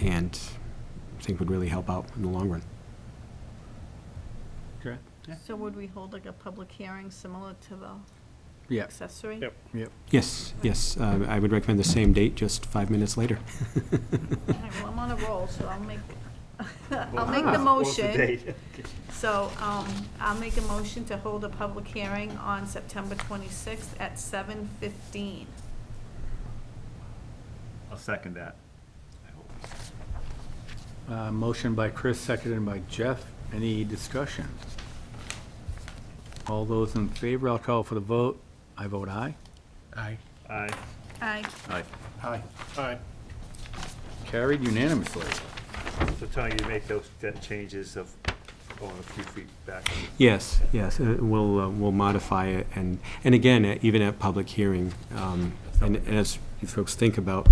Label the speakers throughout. Speaker 1: and I think would really help out in the long run.
Speaker 2: Correct? Yeah.
Speaker 3: So would we hold like a public hearing similar to the
Speaker 2: Yeah.
Speaker 3: accessory?
Speaker 4: Yep.
Speaker 2: Yep.
Speaker 1: Yes, yes, uh, I would recommend the same date, just five minutes later.
Speaker 3: All right, well, I'm on a roll, so I'll make, I'll
Speaker 4: Well,
Speaker 3: make
Speaker 1: Ah.
Speaker 3: the
Speaker 4: what's the
Speaker 3: motion.
Speaker 4: date?
Speaker 3: So, um, I'll make a motion to hold a public hearing on September twenty-sixth at seven fifteen.
Speaker 4: I'll second that. I hope.
Speaker 2: Uh, Motion by Chris, seconded by Jeff. Any discussion? All those in favor, I'll call for the vote. I vote aye.
Speaker 5: Aye.
Speaker 4: Aye.
Speaker 3: I,
Speaker 2: Aye.
Speaker 5: Aye.
Speaker 4: Aye.
Speaker 2: Carried unanimously.
Speaker 4: So Tony, you make those, that changes of going a few feet back.
Speaker 1: Yes, yes, uh, we'll, uh, we'll modify it, and, and again, uh, even at public hearing, um, and and as you folks think about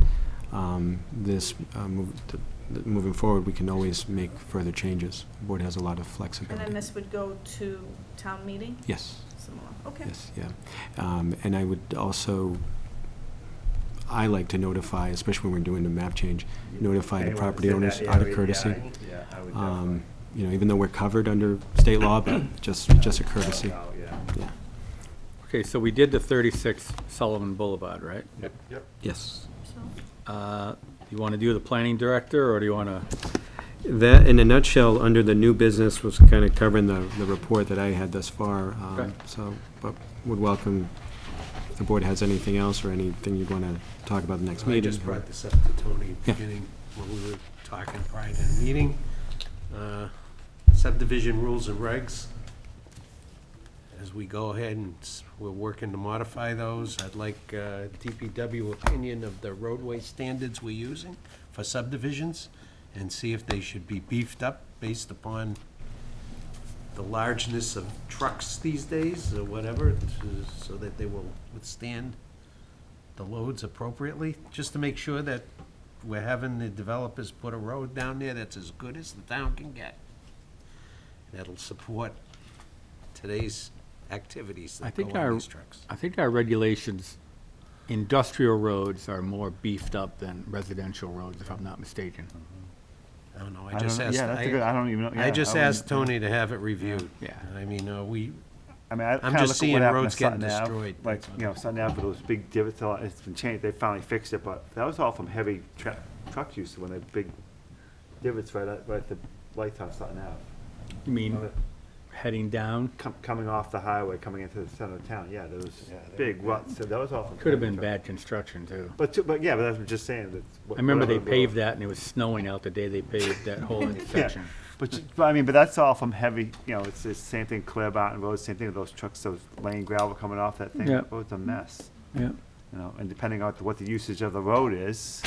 Speaker 1: um, this, uh, move- th- th- moving forward, we can always make further changes. The Board has a lot of
Speaker 3: and
Speaker 1: flexibility.
Speaker 3: then this would go to town meeting,
Speaker 1: Yes.
Speaker 3: similar, okay.
Speaker 1: Yes, yeah. Um, And I would also, I like to notify, especially when we're doing the map change, notify the
Speaker 4: Anyone
Speaker 1: property
Speaker 4: that's in
Speaker 1: owners
Speaker 4: that
Speaker 1: out of
Speaker 4: area,
Speaker 1: courtesy.
Speaker 4: Yeah, I- yeah, I would
Speaker 1: Um,
Speaker 4: definitely.
Speaker 1: You know, even though we're covered under state law, but just, just a courtesy.
Speaker 4: Oh, yeah.
Speaker 1: Yeah.
Speaker 2: Okay, so we did the 36 Sullivan Boulevard, right?
Speaker 4: Yep, yep.
Speaker 1: Yes.
Speaker 3: So,
Speaker 2: Uh, You want to do the planning director, or do you want to?
Speaker 1: That, in a nutshell, under the new business was kind of covering the, the report that I had thus far. um,
Speaker 2: Okay.
Speaker 1: So, but would welcome, if the board has anything else or anything you'd want to talk about the next
Speaker 5: I
Speaker 1: meeting.
Speaker 5: just
Speaker 1: or-
Speaker 5: brought this up to Tony at the
Speaker 1: Yeah.
Speaker 5: beginning when we were talking prior to the meeting. Uh, Subdivision rules and regs. As we go ahead and s- we're working to modify those, I'd like uh, DPW opinion of the roadway standards we're using for subdivisions and see if they should be beefed up based upon the largeness of trucks these days or whatever, to- so that they will withstand the loads appropriately, just to make sure that we're having the developers put a road down there that's as good as the town can get. That'll support today's activities
Speaker 2: I
Speaker 5: that
Speaker 2: think
Speaker 5: go
Speaker 2: our-
Speaker 5: on these trucks.
Speaker 2: I think our regulations, industrial roads are more beefed up than residential roads, if I'm not mistaken.
Speaker 5: I don't know, I
Speaker 6: I don't,
Speaker 5: just
Speaker 6: know.
Speaker 5: asked,
Speaker 6: yeah, that's a good, I
Speaker 5: I,
Speaker 6: don't even know.
Speaker 5: I
Speaker 6: yeah,
Speaker 5: just
Speaker 6: wouldn't-
Speaker 5: asked Tony to have it reviewed.
Speaker 2: Yeah.
Speaker 5: I mean, uh, we,
Speaker 6: I mean, I kinda
Speaker 5: I'm just
Speaker 6: look at what
Speaker 5: seeing
Speaker 6: happened to
Speaker 5: roads getting
Speaker 6: Sutton Ave,
Speaker 5: destroyed.
Speaker 6: Like,
Speaker 5: That's
Speaker 6: you know, Sutton Ave, those big divots, all- it's been changed, they finally fixed it, but that was all from heavy tra- truck use when they big divots right at, right at the lights on Sutton Ave.
Speaker 2: You mean, heading down?
Speaker 6: Com- coming off the highway, coming into the center of town, yeah, there was
Speaker 5: Yeah, they
Speaker 6: big ruts, so that was all. from
Speaker 2: Could have
Speaker 6: heavy
Speaker 2: been
Speaker 6: truck.
Speaker 2: bad construction, too.
Speaker 6: But, to- but yeah, but that's what I'm just saying that.
Speaker 2: I remember they paved that, and it was snowing out the day they paved that whole intersection.
Speaker 6: But, you- but I mean, but that's all from heavy, you know, it's the same thing, Clearbout and Road, same thing with those trucks, those laying gravel coming off that thing.
Speaker 2: Yeah.
Speaker 6: That road's a mess,
Speaker 2: Yeah.
Speaker 6: you know, and depending on what the usage of the road is,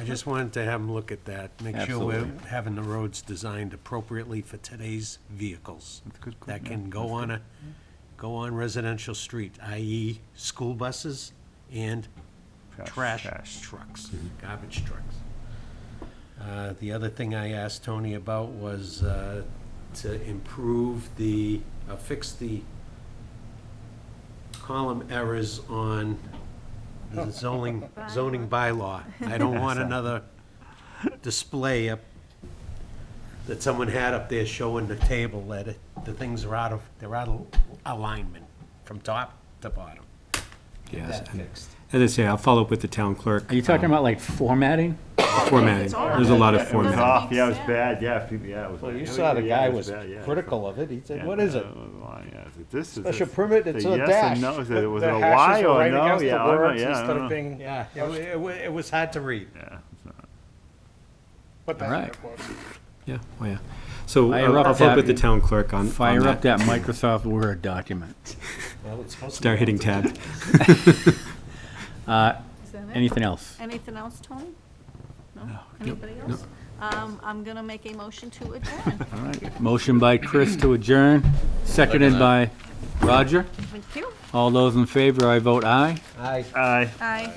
Speaker 5: I just wanted to have him look at that, make sure we're
Speaker 2: Absolutely.
Speaker 5: having the roads designed appropriately for today's vehicles.
Speaker 6: That's good, good,
Speaker 5: That
Speaker 6: yeah,
Speaker 5: can go on a, go on residential street, i.e. school buses and trash trucks, garbage trucks. Uh, The other thing I asked Tony about was uh, to improve the, uh, fix the column errors on the zoning, zoning Oh. bylaw. I don't want another display up, that someone had up there showing the table that it- the things are out of, they're out of alignment from top to bottom. Get
Speaker 1: Yes,
Speaker 5: that
Speaker 1: and-
Speaker 5: fixed.
Speaker 1: As I say, I'll follow up with the town clerk.
Speaker 2: Are you talking
Speaker 1: um,
Speaker 2: about like formatting?
Speaker 1: Formatting.
Speaker 3: It's all
Speaker 1: There's a lot
Speaker 3: right.
Speaker 1: of
Speaker 3: It was
Speaker 1: formatting.
Speaker 3: all-
Speaker 6: off, yeah, it was
Speaker 3: sense.
Speaker 6: bad, yeah, if you- yeah, it was.
Speaker 4: Well,
Speaker 6: like-
Speaker 4: you
Speaker 6: yeah,
Speaker 4: saw the
Speaker 6: yeah,
Speaker 4: guy
Speaker 6: it
Speaker 4: was
Speaker 6: bad, yeah, it's-
Speaker 4: critical of it. He said,
Speaker 6: yeah,
Speaker 4: what is
Speaker 6: no,
Speaker 4: it?
Speaker 6: why, yeah, it's- This is.
Speaker 4: Special
Speaker 6: this-
Speaker 4: permit,
Speaker 6: the
Speaker 4: it's a
Speaker 6: Yes
Speaker 4: dash.
Speaker 6: and no, is
Speaker 4: The-
Speaker 6: it, was
Speaker 4: the
Speaker 6: it a
Speaker 4: hashes
Speaker 6: Y
Speaker 4: were
Speaker 6: or
Speaker 4: right
Speaker 6: no,
Speaker 4: against the
Speaker 6: yeah, I don't know,
Speaker 4: words
Speaker 6: yeah, I
Speaker 4: Instead of
Speaker 6: don't know.
Speaker 4: being,
Speaker 5: Yeah, it wa- it wa- it was hard to read.
Speaker 6: Yeah, it's not-
Speaker 4: what the
Speaker 2: All
Speaker 4: heck
Speaker 2: right.
Speaker 4: it was.
Speaker 1: Yeah, oh, yeah. So
Speaker 2: Fire
Speaker 1: I'll
Speaker 2: up
Speaker 1: I'll follow up
Speaker 2: that-
Speaker 1: with the town clerk on, on
Speaker 2: Fire up
Speaker 1: that.
Speaker 2: that Microsoft Word document.
Speaker 5: Well, it's supposed to be
Speaker 1: Start hitting
Speaker 5: multi-
Speaker 1: tab.
Speaker 2: Uh,
Speaker 3: is that it?
Speaker 2: Anything else?
Speaker 3: Anything else, Tony? No? Anybody else? Um, I'm gonna make a motion to adjourn.
Speaker 2: All right. Motion by Chris to adjourn, seconded by Roger.
Speaker 3: Thank you.
Speaker 2: All those in favor, I vote aye.
Speaker 5: Aye.
Speaker 6: Aye.
Speaker 3: Aye.